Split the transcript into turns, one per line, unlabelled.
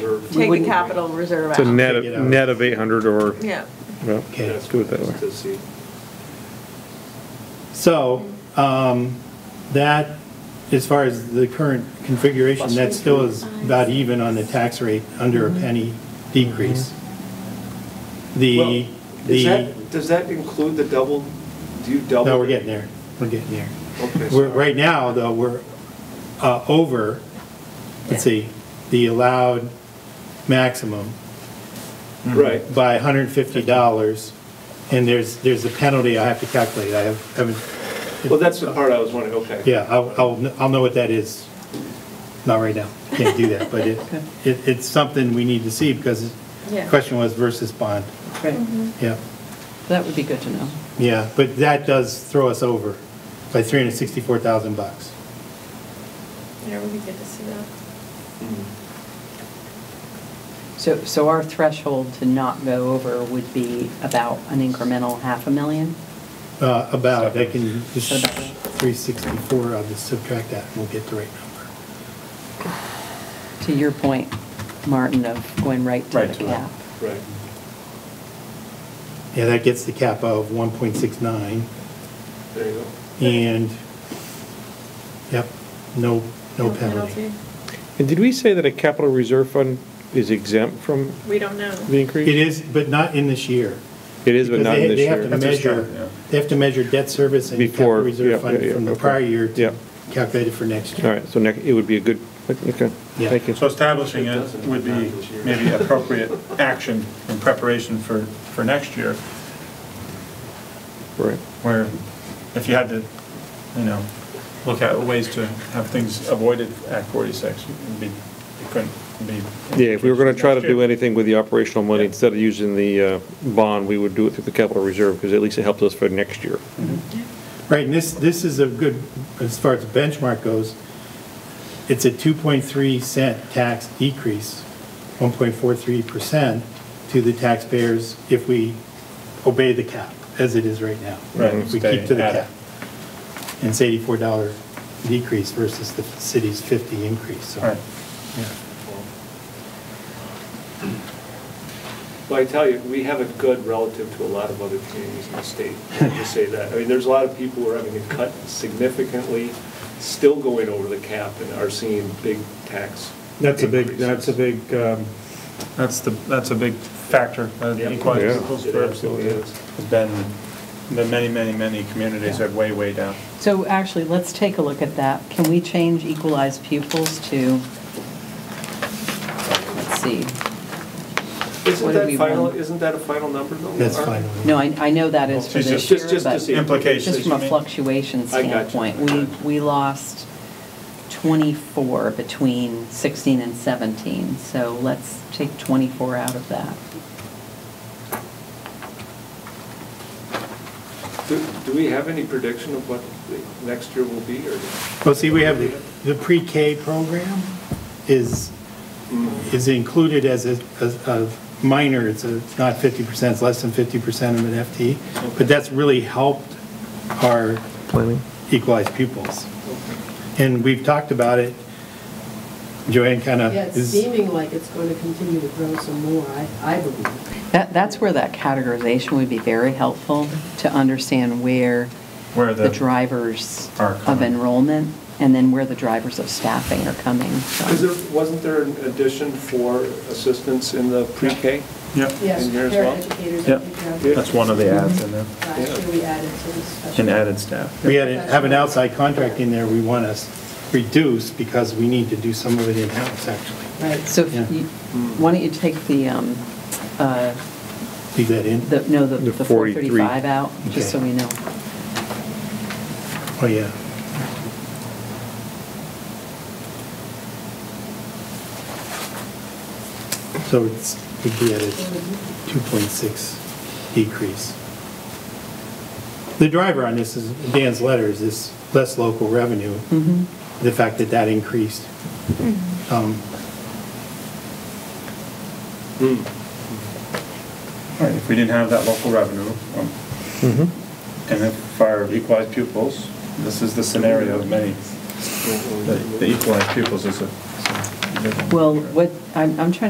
take the
wouldn't-
capital reserve
It's a
out.
net, of- net of 800 or,
Yeah.
well,
Okay.
let's do it that way.
To see.
So, um, that, as far as the current configuration, that still is about even on the tax rate, under a penny decrease.
Mm-hmm. Well,
The,
Is
the,
that, does that include the double, do you double?
no, we're getting there, we're getting there.
Okay,
We're,
so-
right now, though, we're, uh, over, let's see, the allowed maximum
Right,
by hundred and fifty dollars, and there's, there's a penalty I have to calculate, I have- haven't,
well, that's the part I was wondering, okay.
yeah, I'll, I'll, I'll know what that is. Not right now, can't do that, but it, it, it's something we need to see, because the
Yeah.
question was versus bond,
Right,
yeah,
that would be good to know.
yeah, but that does throw us over by three hundred and sixty-four thousand bucks.
Yeah, would be good to see that.
Mhm.
So, so our threshold to not go over would be about an incremental half a million?
Uh, about, I can just,
About.
three sixty-four, I'll just subtract that, and we'll get the right number.
To your point, Martin, of going right to
Right
the
to it.
cap.
Right.
Yeah, that gets the cap of one point six nine.
There you go.
And, yep, no, no penalty.
penalty.
And did we say that a capital reserve fund is exempt from
We don't know.
the
It
increase?
is, but not in this year.
It is, but
Because
not
they-
in this
they have to
year.
That's what I'm
measure-
trying, yeah.
They have to measure debt service and capital
Before, yeah,
reserve
yeah,
fund
yeah,
from the
okay.
prior year
Yeah.
to calculate it for next
All
year.
right, so next, it would be a good, okay,
Yeah.
thank you.
So establishing it would be maybe appropriate action in preparation for, for next year,
Right.
where if you had to, you know, look at ways to have things avoided at 46, it'd be, it couldn't be.
Yeah, if we were going to try to do
Next year.
anything with the operational money,
Yeah.
instead of using the uh, bond, we would do it through the capital reserve, because at least it helps us for next year.
Right, and this, this is a good, as far as the benchmark goes, it's a 2.3 cent tax decrease, 1.43% to the taxpayers if we obey the cap, as it is right now.
Right,
If we
stay
keep to the
at it.
cap. And it's $84 decrease versus the city's 50 increase, so.
All right.
yeah.
Well, I tell you, we have it good relative to a lot of other communities in the state, to say that. I mean, there's a lot of people who are having it cut significantly, still going over the cap and are seeing big tax.
That's a big,
increases.
that's a big, um,
That's the, that's a big factor, uh,
Yeah.
the equalizing
Yeah.
principle
It absolutely is.
has been, the many, many, many communities are way, way down.
So actually, let's take a look at that. Can we change equalized pupils to, let's see. What
Isn't
do
that
we
final,
want?
isn't that a final number though?
That's
Art?
final.
No, I, I know that is for
Just-
this
just-
year,
just to
but
see.
Implications,
Just from a
you mean?
fluctuation
I got you.
standpoint, we, we lost 24 between 16 and 17, so let's take 24 out of that.
Do do we have any prediction of what the next year will be or?
Well, see, we have, the- the pre-K program is, is included as a, as a minor, it's a, it's not 50%, it's less than 50% of an FT, but that's really helped our
Planning?
equalized pupils. And we've talked about it, Joanne kind of
Yeah, it's
is.
seeming like it's going to continue to grow some more, I, I believe.
That, that's where that categorization would be very helpful to understand where
Where
the
the-
drivers
Are
of
coming.
enrollment and then where the drivers of staffing are coming
Is
from.
there, wasn't there an addition for assistance in the pre-K?
Yep.
Yes,
In here as well?
paraeducators, I
Yep,
think, yeah.
that's one of the ads in there,
Last year we added to the special.
and added staff.
We had, have an outside contract in there we want to reduce because we need to do some of it in-house, actually.
Right,
So if
Yeah.
you- why don't you take the, um, uh,
Leave that in?
the, no, the
The
the
43.
435 out, just so
Okay.
we know.
Oh, yeah. So it's, we'd be at a 2.6 decrease. The driver on this is, Dan's letter is this less local revenue,
Mhm.
the fact that that increased. Um,
All right, if we didn't have that local revenue, um,
Mm-hmm.
and if our equalized pupils, this is the scenario of many, the the equalized pupils is a. is a-
Well, what, I'm, I'm trying